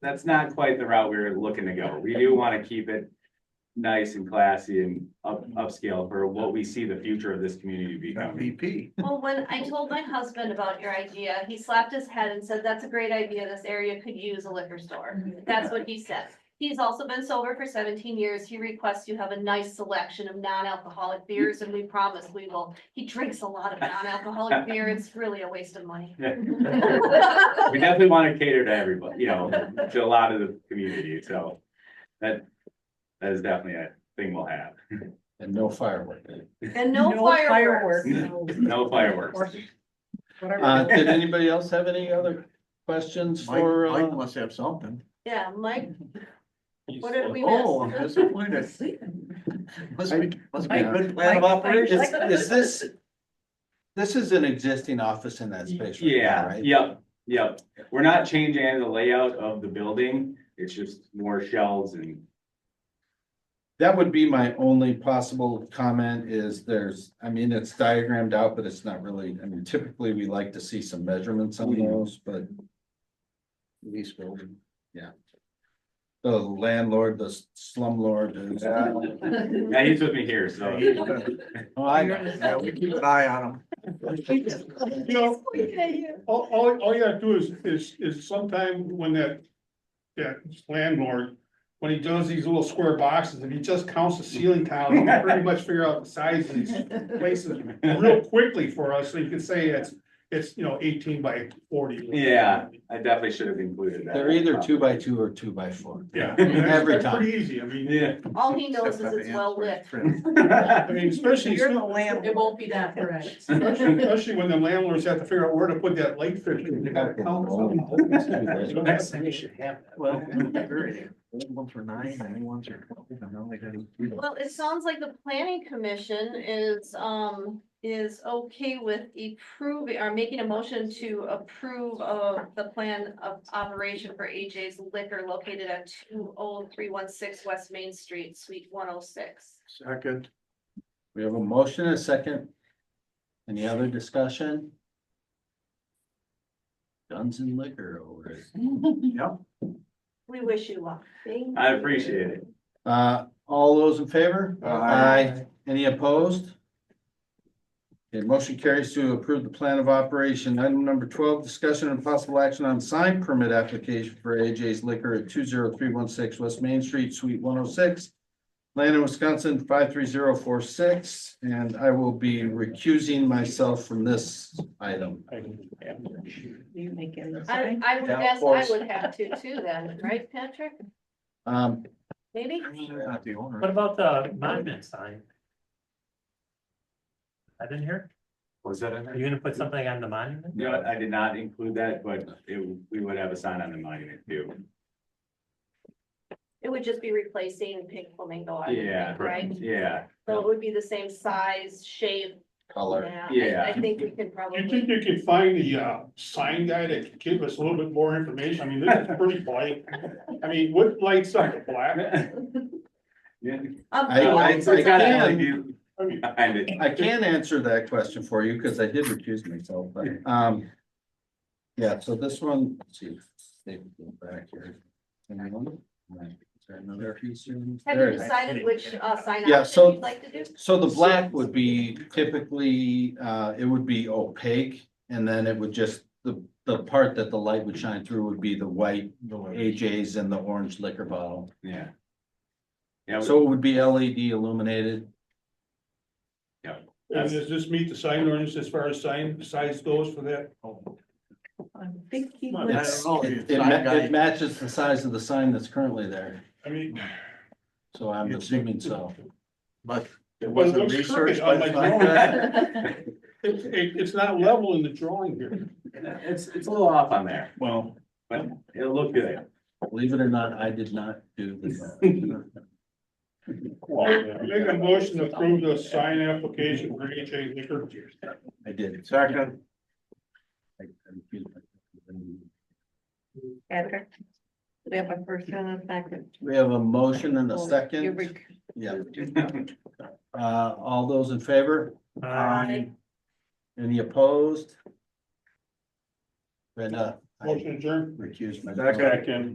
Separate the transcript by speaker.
Speaker 1: that's not quite the route we were looking to go. We do want to keep it nice and classy and up, upscale for what we see the future of this community becoming.
Speaker 2: MVP.
Speaker 3: Well, when I told my husband about your idea, he slapped his head and said, that's a great idea. This area could use a liquor store. That's what he said. He's also been sober for seventeen years. He requests you have a nice selection of non-alcoholic beers and we promise we will. He drinks a lot of non-alcoholic beer. It's really a waste of money.
Speaker 1: We definitely want to cater to everybody, you know, to a lot of the community, so that, that is definitely a thing we'll have.
Speaker 2: And no firework.
Speaker 3: And no fireworks.
Speaker 1: No fireworks.
Speaker 2: Uh, did anybody else have any other questions
Speaker 4: Mike,
Speaker 2: for,
Speaker 4: Mike
Speaker 2: uh?
Speaker 4: must have something.
Speaker 3: Yeah, Mike, what did we miss?
Speaker 4: Oh, I'm disappointed. Must be, must be a good plan of
Speaker 5: Mike-
Speaker 4: operations.
Speaker 2: Is, is this? This is an existing office in that space right now,
Speaker 1: Yeah,
Speaker 2: right?
Speaker 1: yep, yep. We're not changing any of the layout of the building. It's just more shelves and
Speaker 2: That would be my only possible comment is there's, I mean, it's diagrammed out, but it's not really, I mean, typically we like to see some measurements on
Speaker 4: Mhm.
Speaker 2: those, but
Speaker 4: Lease building.
Speaker 2: the landlord, the slumlord is.
Speaker 1: Yeah, he's with me here, so.
Speaker 2: Oh, I know.
Speaker 4: Yeah, we keep an eye on them.
Speaker 6: You know, all, all, all you gotta do is, is, is sometime when that, that landlord, when he does these little square boxes, if he just counts the ceiling tile, he can pretty much figure out the size of these places real quickly for us, so you can say it's, it's, you know, eighteen by forty.
Speaker 1: Yeah. I definitely should have included that.
Speaker 2: They're either two by two or two by four.
Speaker 6: Yeah.
Speaker 2: Every
Speaker 6: That's
Speaker 2: time.
Speaker 6: Pretty easy, I mean,
Speaker 1: Yeah.
Speaker 3: all he knows is
Speaker 4: Except
Speaker 3: it's
Speaker 4: for
Speaker 3: well lit.
Speaker 4: Ant's friend.
Speaker 1: Yeah,
Speaker 6: I mean, especially,
Speaker 5: You're the landlord. It won't be that correct.
Speaker 6: especially when the landlords have to figure out where to put that light fixture, they gotta count.
Speaker 4: Well, one for nine, and one for twelve, and now they got.
Speaker 3: Well, it sounds like the planning commission is, um, is okay with approving, or making a motion to approve of the plan of operation for AJ's Liquor located at two oh three one six West Main Street, Suite one oh six.
Speaker 4: Second.
Speaker 2: We have a motion, and a second. Any other discussion? Guns and liquor over it.
Speaker 4: Yep.
Speaker 3: We wish you luck.
Speaker 1: I appreciate it.
Speaker 2: Uh, all those in favor?
Speaker 4: Aye.
Speaker 2: Any opposed? Okay, motion carries to approve the plan of operation. Item number twelve, discussion and possible action on sign permit application for AJ's Liquor at two zero three one six West Main Street, Suite one oh six. Landon, Wisconsin, five three zero four six, and I will be recusing myself from this item.
Speaker 5: You make it.
Speaker 3: I, I would
Speaker 2: Yeah, of
Speaker 3: guess I
Speaker 2: course.
Speaker 3: would have to too then, right, Patrick?
Speaker 2: Um,
Speaker 3: Maybe?
Speaker 4: Not the owner.
Speaker 7: What about the monument sign? I didn't hear,
Speaker 1: Was that in
Speaker 7: are you gonna put something on the monument?
Speaker 1: No, I did not include that, but it, we would have a sign on the monument too.
Speaker 3: It would just be replacing Pink Flamingo, I would
Speaker 1: Yeah.
Speaker 3: think, right?
Speaker 1: Yeah,
Speaker 3: So it would be the same size, shape,
Speaker 2: color.
Speaker 3: yeah. I-
Speaker 1: Yeah.
Speaker 3: I think we can probably.
Speaker 6: You think you could find the, uh, sign guy that could give us a little bit more information? I mean, this is pretty blank. I mean, what lights are black?
Speaker 1: Yeah.
Speaker 3: Um,
Speaker 2: I-
Speaker 3: well,
Speaker 2: I-
Speaker 3: since
Speaker 1: I got
Speaker 2: can-
Speaker 1: LED
Speaker 6: I mean,
Speaker 1: behind it.
Speaker 2: I can answer that question for you because I did recuse myself, but, um. Yeah, so this one, let's see, they go back here. Anyone? Right, is there another piece here?
Speaker 3: Have
Speaker 2: There
Speaker 3: you
Speaker 2: it is.
Speaker 3: decided which, uh, sign
Speaker 2: Yeah, so-
Speaker 3: option you'd like to do?
Speaker 2: So the black would be typically, uh, it would be opaque and then it would just, the, the part that the light would shine through would be the white AJ's and the orange liquor bottle.
Speaker 1: Yeah. Yeah, we-
Speaker 2: So it would be LED illuminated.
Speaker 6: And does this meet the sign ordinance as far as sign size goes for that?
Speaker 4: Oh,
Speaker 5: I'm thinking.
Speaker 6: I don't
Speaker 2: It's,
Speaker 4: know,
Speaker 2: it,
Speaker 4: the
Speaker 2: it ma-
Speaker 4: sign guy-
Speaker 2: it matches the size of the sign that's currently there,
Speaker 6: I mean,
Speaker 2: so I'm
Speaker 4: It's-
Speaker 2: assuming so.
Speaker 4: But it
Speaker 6: Well, it
Speaker 4: wasn't
Speaker 6: looks
Speaker 4: researched
Speaker 6: crooked
Speaker 4: by
Speaker 6: on
Speaker 4: the
Speaker 6: my
Speaker 4: sign
Speaker 6: drawing.
Speaker 4: guy.
Speaker 6: it's, it- it's not level in the drawing here.
Speaker 1: It's, it's a little off on there,
Speaker 4: Well,
Speaker 1: but it'll look good.
Speaker 2: Believe it or not, I did not do the.
Speaker 6: Make a motion to approve the sign application for AJ Liquor.
Speaker 2: I did.
Speaker 4: second,
Speaker 2: I- I refused my-
Speaker 5: Patrick, We have a first and a second.
Speaker 2: We have a motion and a
Speaker 5: You're
Speaker 2: second,
Speaker 5: rec-
Speaker 2: yeah, uh, all those in favor,
Speaker 7: Uh,
Speaker 2: any opposed? Brenda, I
Speaker 6: Motion adjourned.
Speaker 2: recused myself.
Speaker 4: second.
Speaker 6: Second.